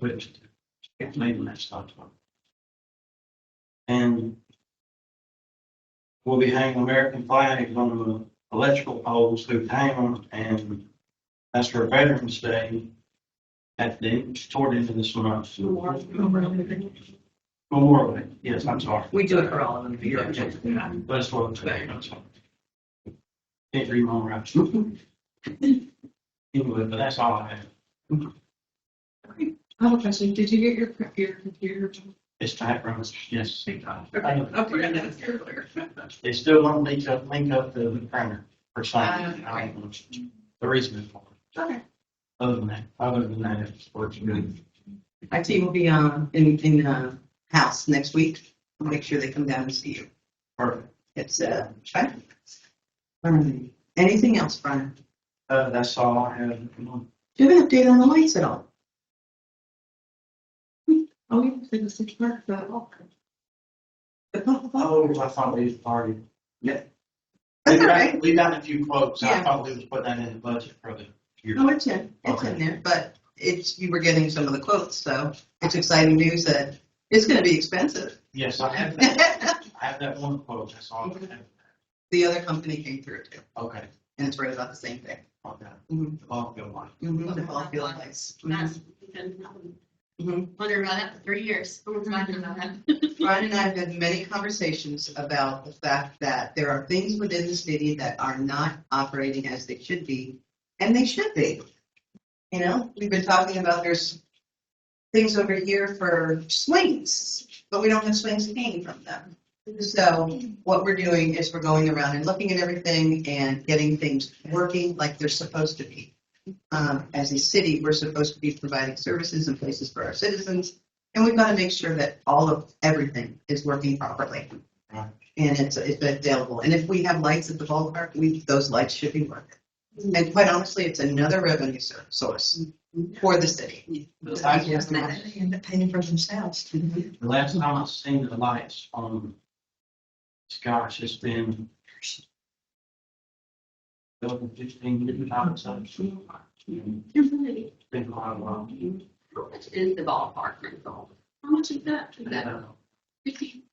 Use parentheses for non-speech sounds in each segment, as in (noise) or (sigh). which gets made in that stock fund. And we'll be hanging American flags on the electrical poles through town, and that's for Veterans Day at the, toward the end of this month. Memorial Day, yes, I'm sorry. We do it for all of them, you're objective. That's what I'm saying, that's all. Can't read my own writing. (laughs) Anyway, but that's all I have. Oh, Justin, did you get your, your computer? It's backgrounds, yes. Okay, okay, that's clear. They still won't link up, link up the printer for signing. Ah, okay. I don't know. The reason for it. Okay. Other than that, other than that, it's working good. IT will be, um, in, in, uh, house next week. We'll Make sure they come down and see you. Perfect. It's, uh, right? Um, Anything else, Brian? Uh, that's all I have. at the moment. Do you have an update on the lights at all? Oh, you said the six months, but oh, The pop- pop- Oh, I thought we was party. That's all right. We got a few quotes. I Yeah. Oh. thought we was putting that in the budget for the year. No, it's in, it's in there, but it's, you were getting some of the quotes, so it's exciting news that it's gonna be expensive. (laughs) Yes, I have that. The I have that one quote. That's all. I have. other company came through too, Okay. and it's right about the same thing. Okay. Mhm. The ball field line. Mhm, The ball field lights. Mhm. That's, Mm-hmm. Mhm. wonder about that for three years. We're talking about that. Brian and I have had many conversations about the fact that there are things within the city that are not operating as they should be, and they should be. You know, we've been talking about there's things over here for swings, but we don't have swings hanging from them. So what we're doing is we're going around and looking at everything and getting things working like they're supposed to be. Um, as a city, we're supposed to be providing services and places for our citizens. And we've got to make sure that all of everything is working properly. Right. And it's, it's available. And if we have lights at the ballpark, we, those lights should be working. And quite honestly, it's another revenue sur- source for the city. The last Yeah. time I- they end up paying for themselves. the last time I seen the lights on, gosh, it's been over fifteen years, I would say. It's Really, Been a lot of long. How much is the ballpark rental? How much is that? for that?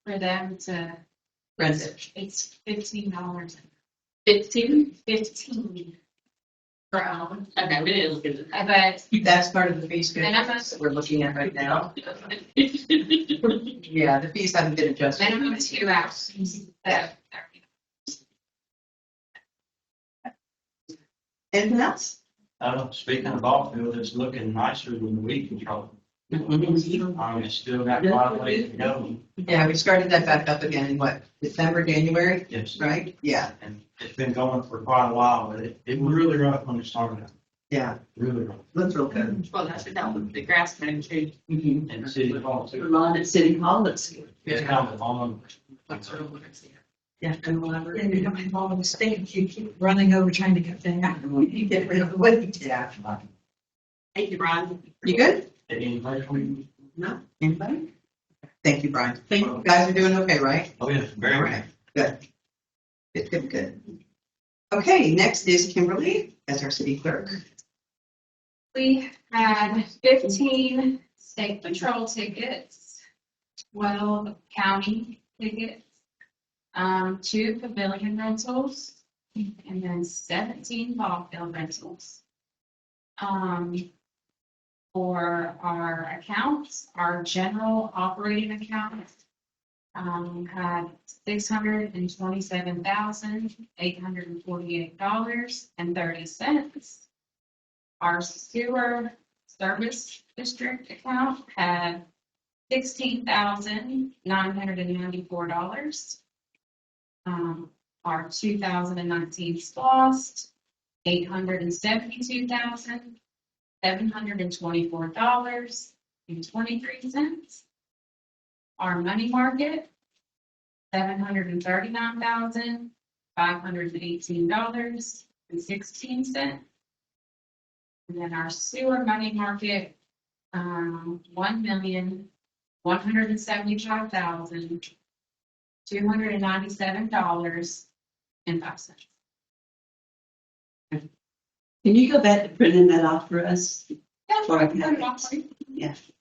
For them to, Rent it. it's fifteen dollars, Fifteen? fifteen per hour. Okay, we didn't look at it. But That's part of the fee schedule And I'm not- that we're looking at right now. Yeah, the fees haven't been adjusted. minimum two hours. So, Anything else? Uh, speaking of ball field, it's looking nicer than the weed control. Um, it's still got a lot of ways to go, Yeah, we started that back up again in what, December, January, yes, right? Yeah, and it's been going for quite a while, but it, it was really rough when it started out, yeah, really rough. that's real good. (laughs) Well, that's what that was, the grass man too. And city hall too, Lawn at City Hall, it's. it's kind of long, That's what I wanted to see. Yeah, and whatever. And you don't have all the mistakes, you keep running over trying to get there. You get rid of the weight. Yeah. Thank you, Brian. You good? anyway, No, anybody? Thank you, Brian. Thank you. Guys are doing okay, right? oh yeah, very much. Good. Good, good, good. Okay, next is Kimberly as our city clerk. We had fifteen state patrol tickets, twelve county tickets, um, two pavilion rentals, and then seventeen ball field rentals. Um, for our accounts, our general operating account, um, had six hundred and twenty-seven thousand, eight hundred and forty-eight dollars and thirty cents. Our sewer service district account had sixteen thousand nine hundred and ninety-four dollars. Um, our two thousand and nineteen SLOST, eight hundred and seventy-two thousand seven hundred and twenty-four dollars and twenty-three cents. Our money market, seven hundred and thirty-nine thousand five hundred and eighteen dollars and sixteen cents. And then our sewer money market, um, one million, one hundred and seventy-five thousand, two hundred and ninety-seven dollars and five cents. Can you go back to printing that off for us? Yeah, Or I put can it have off. it. Yeah.